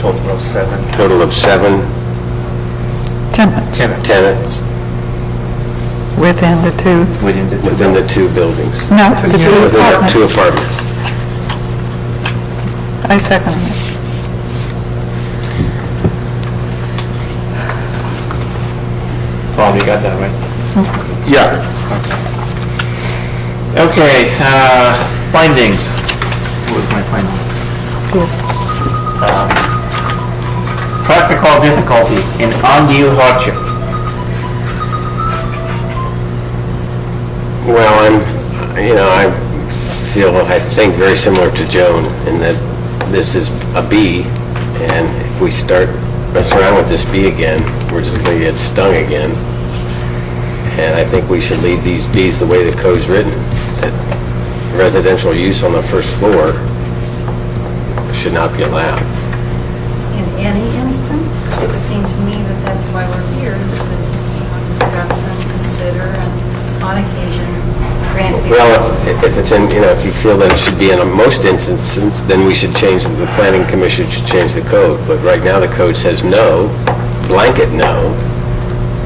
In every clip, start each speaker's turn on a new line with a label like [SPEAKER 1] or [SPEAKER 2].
[SPEAKER 1] total of seven
[SPEAKER 2] Total of seven
[SPEAKER 3] tenants
[SPEAKER 1] tenants
[SPEAKER 2] tenants
[SPEAKER 3] within the two,
[SPEAKER 1] within the two
[SPEAKER 2] within the two buildings.
[SPEAKER 3] no, the two
[SPEAKER 2] Within the two
[SPEAKER 3] apartments.
[SPEAKER 2] apartments.
[SPEAKER 3] I second it.
[SPEAKER 1] Paul, you got that right?
[SPEAKER 2] Yeah.
[SPEAKER 1] Okay, uh, findings. What was my findings? Um, Practical difficulty and undue hardship.
[SPEAKER 2] Well, I'm, you know, I feel, I think very similar to Joan in that this is a B, and if we start messing around with this B again, we're just going to get stung again. And I think we should leave these Bs the way the code's written, that residential use on the first floor should not be allowed.
[SPEAKER 4] in any instance. It would seem to me that that's why we're here, is to, you know, discuss and consider and on occasion grant
[SPEAKER 2] Well, if-
[SPEAKER 4] variances.
[SPEAKER 2] if it's in, you know, if you feel that it should be in most instances, then we should change, the planning commission should change the code. But right now, the code says no, blanket no.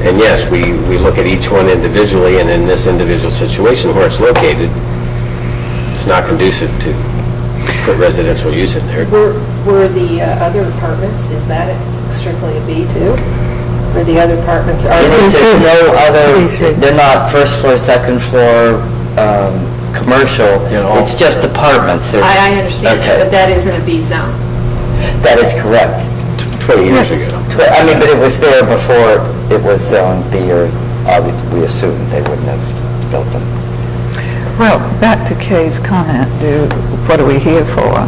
[SPEAKER 2] And yes, we, we look at each one individually, and in this individual situation where it's located, it's not conducive to put residential use in there.
[SPEAKER 5] Were, were the uh, other apartments, is that strictly a B too? Were the other apartments, are
[SPEAKER 6] There's
[SPEAKER 5] they,
[SPEAKER 6] there's no
[SPEAKER 3] Three, three.
[SPEAKER 6] other, they're not first floor, second floor, um, commercial,
[SPEAKER 1] They're all-
[SPEAKER 6] it's just apartments. They're-
[SPEAKER 7] I, I understand that,
[SPEAKER 6] Okay.
[SPEAKER 7] but that isn't a B zone.
[SPEAKER 6] That is correct.
[SPEAKER 2] Twenty years ago.
[SPEAKER 6] Tw- I mean, but it was there before it was zone B, or I would- we assumed they wouldn't have built them.
[SPEAKER 3] Well, back to Kay's comment, do, what are we here for?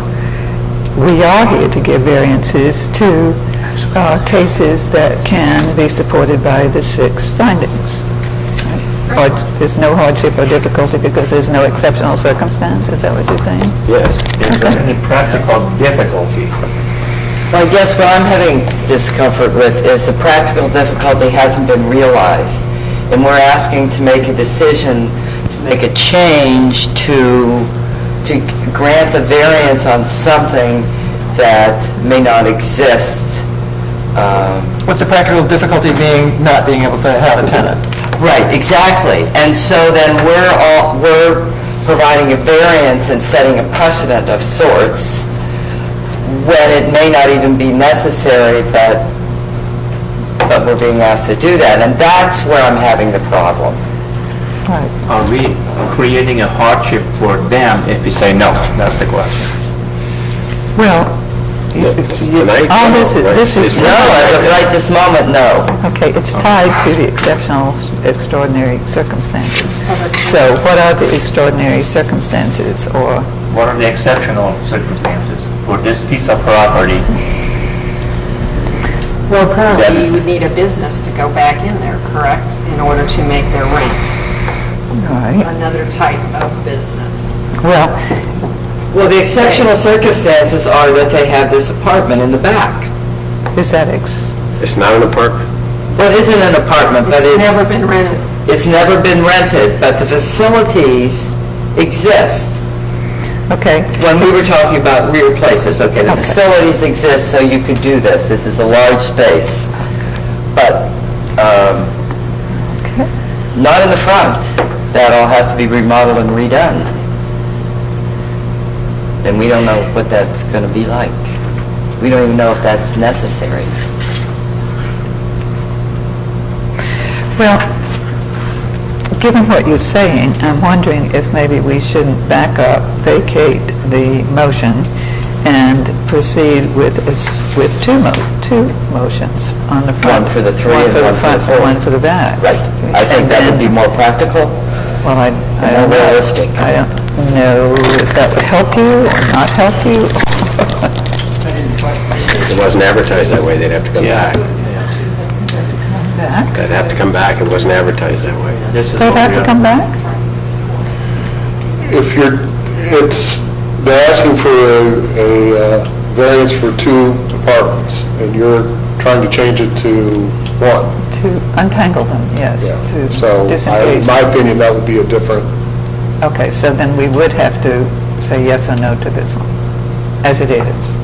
[SPEAKER 3] We are here to give variances to uh, cases that can be supported by the six findings. Or there's no hardship or difficulty because there's no exceptional circumstance, is that what you're saying?
[SPEAKER 2] Yes.
[SPEAKER 1] It's any practical difficulty.
[SPEAKER 6] Well, I guess what I'm having discomfort with is the practical difficulty hasn't been realized, and we're asking to make a decision, to make a change to, to grant a variance on something that may not exist. Um,
[SPEAKER 8] With the practical difficulty being not being able to have a tenant.
[SPEAKER 6] Right, exactly. And so then we're all, we're providing a variance and setting a precedent of sorts when it may not even be necessary, but, but we're being asked to do that. And that's where I'm having the problem.
[SPEAKER 3] Right.
[SPEAKER 1] Are we creating a hardship for them if we say no? That's the question.
[SPEAKER 3] Well,
[SPEAKER 2] Tonight?
[SPEAKER 3] all this is- this
[SPEAKER 2] It's
[SPEAKER 3] is-
[SPEAKER 6] No, as of right this moment, no.
[SPEAKER 3] Okay, it's tied to the exceptional, extraordinary circumstances. So what are the extraordinary circumstances, or,
[SPEAKER 1] What are the exceptional circumstances for this piece of property?
[SPEAKER 7] Well,
[SPEAKER 1] That
[SPEAKER 7] currently,
[SPEAKER 1] is-
[SPEAKER 7] you would need a business to go back in there, correct, in order to make their rent,
[SPEAKER 3] right,
[SPEAKER 7] another type of business.
[SPEAKER 3] well,
[SPEAKER 6] Well, the exceptional circumstances are that they have this apartment in the back.
[SPEAKER 3] is that ex,
[SPEAKER 2] It's not an apartment.
[SPEAKER 6] Well, it isn't an apartment, but
[SPEAKER 7] It's
[SPEAKER 6] it's...
[SPEAKER 7] never been rented.
[SPEAKER 6] It's never been rented, but the facilities exist.
[SPEAKER 3] okay.
[SPEAKER 6] When we were talking about rear places, okay, the
[SPEAKER 3] Okay.
[SPEAKER 6] facilities exist, so you could do this, this is a large space, but um, not in the front, that all has to be remodeled and redone. And we don't know what that's going to be like. We don't even know if that's necessary.
[SPEAKER 3] Well, given what you're saying, I'm wondering if maybe we shouldn't back up, vacate the motion, and proceed with, a s- with two mo, two motions on the front.
[SPEAKER 6] One for the three and one for the
[SPEAKER 3] front,
[SPEAKER 6] four.
[SPEAKER 3] One for the back.
[SPEAKER 6] Right. I think that would be more practical.
[SPEAKER 3] Well, I, I
[SPEAKER 6] And
[SPEAKER 3] don't
[SPEAKER 6] more
[SPEAKER 3] know.
[SPEAKER 6] realistic.
[SPEAKER 3] I don't know if that would help you or not help you.
[SPEAKER 2] If it wasn't advertised that way, they'd have to come back.
[SPEAKER 3] Back.
[SPEAKER 2] They'd have to come back. It wasn't advertised that way.
[SPEAKER 1] This is
[SPEAKER 3] They'd
[SPEAKER 1] what
[SPEAKER 3] have
[SPEAKER 1] we
[SPEAKER 3] to
[SPEAKER 1] are-
[SPEAKER 3] come back?
[SPEAKER 9] if you're, it's, they're asking for a, a uh, variance for two apartments, and you're trying to change it to one.
[SPEAKER 3] To untangle them, yes,
[SPEAKER 9] Yeah.
[SPEAKER 3] to
[SPEAKER 9] So, I- in
[SPEAKER 3] disengage.
[SPEAKER 9] my opinion, that would be a different,
[SPEAKER 3] Okay, so then we would have to say yes or no to this one, as it is.